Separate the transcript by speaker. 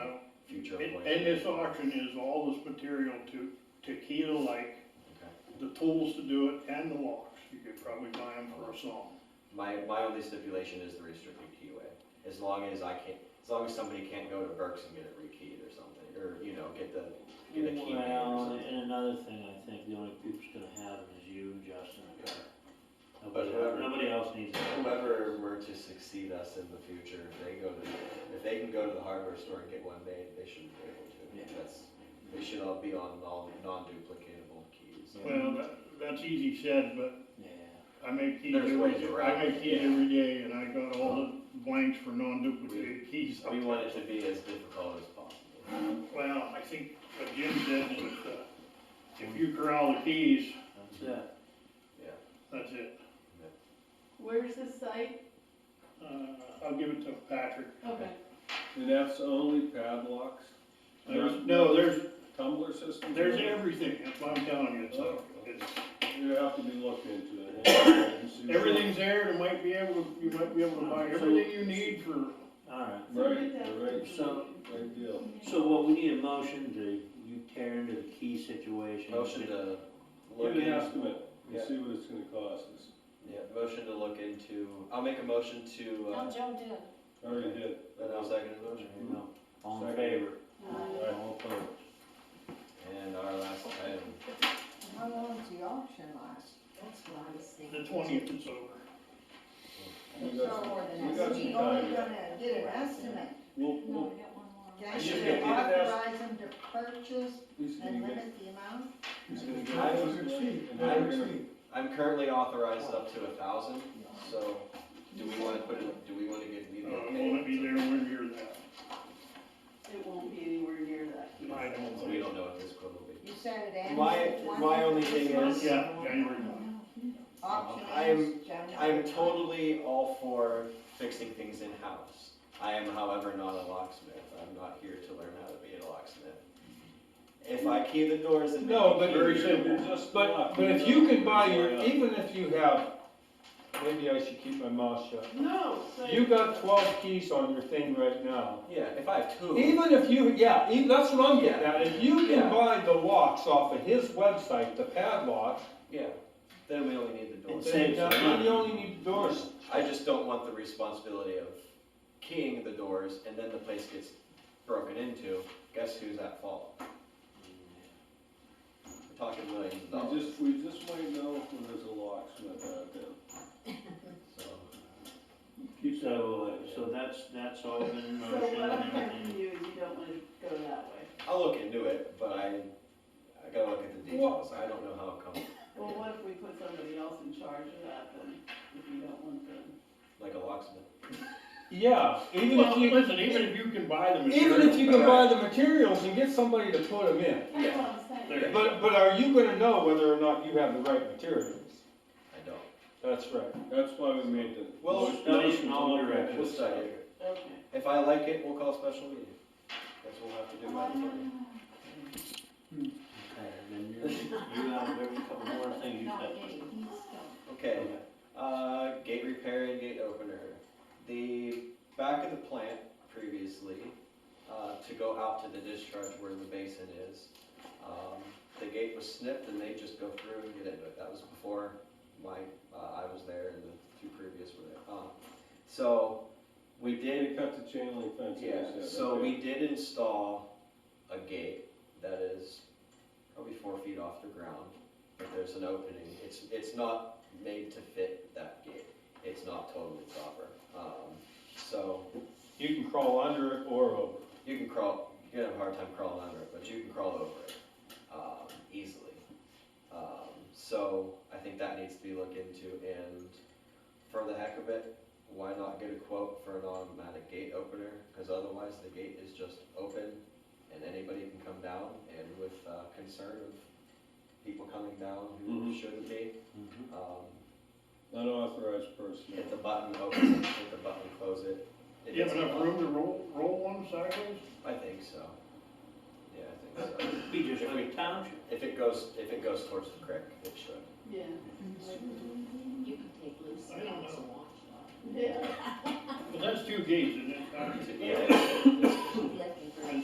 Speaker 1: And,
Speaker 2: way.
Speaker 1: and this auction is all this material to Tequila Lake,
Speaker 2: Okay.
Speaker 1: the tools to do it and the locks. You could probably buy them for a song.
Speaker 2: My, my only stipulation is the restricted keyway, as long as I can't, as long as somebody can't go to Burke's and get it rekeyed or something, or, you know, get the, get a key made or
Speaker 3: Well,
Speaker 2: something.
Speaker 3: and another thing, I think the only people that's gonna have it is you, Justin, and Kurt. Nobody,
Speaker 2: But whoever-
Speaker 3: nobody else needs it.
Speaker 2: Whoever were to succeed us in the future, if they go to, if they can go to the hardware store and get one made, they should be able
Speaker 3: Yeah.
Speaker 2: to. That's, they should all be on all non-duplicatable keys.
Speaker 3: Yeah.
Speaker 1: Well, that, that's easy said, but
Speaker 3: Yeah,
Speaker 1: I make keys
Speaker 2: There's
Speaker 1: every,
Speaker 2: ways
Speaker 1: day-
Speaker 2: around
Speaker 1: I
Speaker 2: it,
Speaker 1: make keys
Speaker 3: yeah.
Speaker 1: every day and I got all the blanks for non-duplicated keys.
Speaker 2: We want it to be as difficult as possible.
Speaker 1: Well, I think what Jim said is, uh, if you corral the keys,
Speaker 3: that's it.
Speaker 1: that's it.
Speaker 4: Where's the site?
Speaker 1: Uh, I'll give it to Patrick.
Speaker 4: Okay,
Speaker 5: And that's only padlocks?
Speaker 1: There's, no, there's,
Speaker 5: Tumbler system?
Speaker 1: there's everything. That's what I'm telling you. It's, like-
Speaker 2: Oh,
Speaker 1: it's
Speaker 5: You have to be looked into it.
Speaker 1: Everything's there, you might be able, to- you might be able to buy everything you need for,
Speaker 3: Alright,
Speaker 5: Right, right,
Speaker 3: so,
Speaker 5: great deal.
Speaker 3: so what, we need a motion to, you tear into the key situation.
Speaker 2: Motion to look
Speaker 5: Get an
Speaker 2: into,
Speaker 5: estimate and
Speaker 2: Yeah.
Speaker 5: see what it's gonna cost us.
Speaker 2: yeah, motion to look into, I'll make a motion to,
Speaker 6: No,
Speaker 2: uh,
Speaker 6: Joe did.
Speaker 5: I Already did.
Speaker 2: then I'll second the
Speaker 3: There
Speaker 2: motion.
Speaker 3: you go. All in
Speaker 5: Second.
Speaker 3: favor,
Speaker 6: Uh,
Speaker 5: Right.
Speaker 3: all opposed.
Speaker 2: And our last item,
Speaker 6: How long does the auction last? That's what I was
Speaker 1: the
Speaker 6: thinking.
Speaker 1: twentieth is over.
Speaker 5: We
Speaker 6: So,
Speaker 5: got some- we got some
Speaker 6: we
Speaker 5: time.
Speaker 6: only
Speaker 5: yet.
Speaker 6: Oh, gonna get an estimate.
Speaker 5: We'll,
Speaker 4: no,
Speaker 5: we'll,
Speaker 4: we got one more.
Speaker 6: Can I
Speaker 2: It's just
Speaker 6: should
Speaker 5: gonna be-
Speaker 6: authorize them to purchase
Speaker 5: he's gonna
Speaker 6: and
Speaker 5: get,
Speaker 6: limit the amount?
Speaker 5: he's gonna get.
Speaker 2: I
Speaker 5: an
Speaker 2: was
Speaker 5: estimate, and
Speaker 2: I
Speaker 5: then we're
Speaker 2: was
Speaker 5: gonna-
Speaker 2: I'm currently authorized up to a thousand, so do we wanna put it, do we wanna get, be the
Speaker 1: Uh, it
Speaker 2: okay?
Speaker 1: won't be there when you're that.
Speaker 7: It won't be anywhere near that.
Speaker 1: I don't
Speaker 2: So We
Speaker 1: think.
Speaker 2: don't know if this quote will be.
Speaker 6: You said it ends.
Speaker 2: My-
Speaker 6: at 20
Speaker 2: my only
Speaker 6: this
Speaker 2: thing
Speaker 6: month?
Speaker 2: is-
Speaker 1: Yeah, January.
Speaker 6: Auction
Speaker 2: I'm-
Speaker 6: ends January.
Speaker 2: I'm totally all for fixing things in-house. I am however not a locksmith, I'm not here to learn how to be a locksmith. If I key the doors and. make
Speaker 8: No,
Speaker 2: a
Speaker 8: but
Speaker 2: key,
Speaker 1: Very
Speaker 5: You're
Speaker 1: simple.
Speaker 5: just
Speaker 8: But,
Speaker 5: lucky.
Speaker 8: but if you can buy your,
Speaker 5: Yeah.
Speaker 8: even if you have, maybe I should keep my mouth shut.
Speaker 7: No. but-
Speaker 8: You got twelve keys on your thing right now.
Speaker 2: Yeah, if I have two,
Speaker 8: Even if you, yeah, e- that's what I'm getting
Speaker 2: Yeah.
Speaker 8: at, if you
Speaker 2: Yeah.
Speaker 8: can buy the locks off of his website, the padlock,
Speaker 2: yeah, then we only need the doors.
Speaker 3: It's-
Speaker 8: then
Speaker 3: saves money.
Speaker 8: you only need doors.
Speaker 2: I just don't want the responsibility of keying the doors and then the place gets broken into. Guess who's at fault? We're talking millions of
Speaker 5: We
Speaker 2: dollars.
Speaker 5: just, we just might know when there's a locksmith out there.
Speaker 2: So,
Speaker 5: Keep that in
Speaker 3: So, uh,
Speaker 5: mind.
Speaker 3: so that's, that's all been in
Speaker 7: So
Speaker 3: motion.
Speaker 7: what I'm hearing
Speaker 3: and-
Speaker 7: from you is you don't wanna go that way.
Speaker 2: I'll look into it, but I, I gotta look at the details. I don't know how it comes,
Speaker 7: Well, what if we put somebody else in charge of that then, if you don't want them?
Speaker 2: like a locksmith.
Speaker 8: Yeah, even if
Speaker 1: Well,
Speaker 8: you,
Speaker 1: listen, even if you can buy the material.
Speaker 8: even if you can buy the materials and get somebody to put them in.
Speaker 7: That's what I'm saying.
Speaker 1: There.
Speaker 8: But, but are you gonna know whether or not you have the right materials?
Speaker 2: I don't.
Speaker 8: That's right.
Speaker 5: That's why we made the.
Speaker 2: Well,
Speaker 5: motion
Speaker 3: studies
Speaker 5: to
Speaker 3: in all
Speaker 5: look at
Speaker 3: directions.
Speaker 2: We'll
Speaker 5: this.
Speaker 2: study it.
Speaker 7: Okay.
Speaker 2: If I like it, we'll call a special meeting. That's what we'll have to do.
Speaker 3: Okay, then you're, you have every couple more things you
Speaker 6: Not
Speaker 3: said.
Speaker 6: getting, he's still-
Speaker 2: Okay, uh, gate repair and gate opener. The back of the plant previously, uh, to go out to the discharge where the basin is, um, the gate was snipped and they just go through and get into it. That was before my, uh, I was there and the two previous were there. Um, So, we did
Speaker 5: They cut the chain link fence.
Speaker 2: yeah,
Speaker 5: instead,
Speaker 2: so
Speaker 5: okay.
Speaker 2: we did install a gate that is probably four feet off the ground, but there's an opening. It's, it's not made to fit that gate. It's not totally proper. Um, so
Speaker 8: You can crawl under it or over.
Speaker 2: you can crawl, you're gonna have a hard time crawling under it, but you can crawl over it, um, easily. Um, so I think that needs to be looked into and for the heck of it, why not get a quote for an automatic gate opener? Cause otherwise the gate is just open and anybody can come down and with, uh, concern of people coming down who
Speaker 1: Mm-hmm.
Speaker 5: Mhm.
Speaker 2: shouldn't be,
Speaker 3: Mhm.
Speaker 2: um,
Speaker 5: Unauthorized personnel.
Speaker 2: hit the button, open it, hit the button, close it. It
Speaker 1: Do you
Speaker 2: hits
Speaker 1: have
Speaker 2: the
Speaker 1: enough
Speaker 2: button.
Speaker 1: room to roll, roll one sideways?
Speaker 2: I think so. Yeah, I think so.
Speaker 3: Be just like a township.
Speaker 2: If it goes, if it goes towards the creek, it should.
Speaker 7: Yeah.
Speaker 6: You can take loose
Speaker 1: I don't
Speaker 6: ends
Speaker 1: know.
Speaker 6: and wash
Speaker 7: Yeah.
Speaker 1: Well, that's two gates, isn't it?
Speaker 2: Yeah, it's- it's-
Speaker 6: them. Looking for-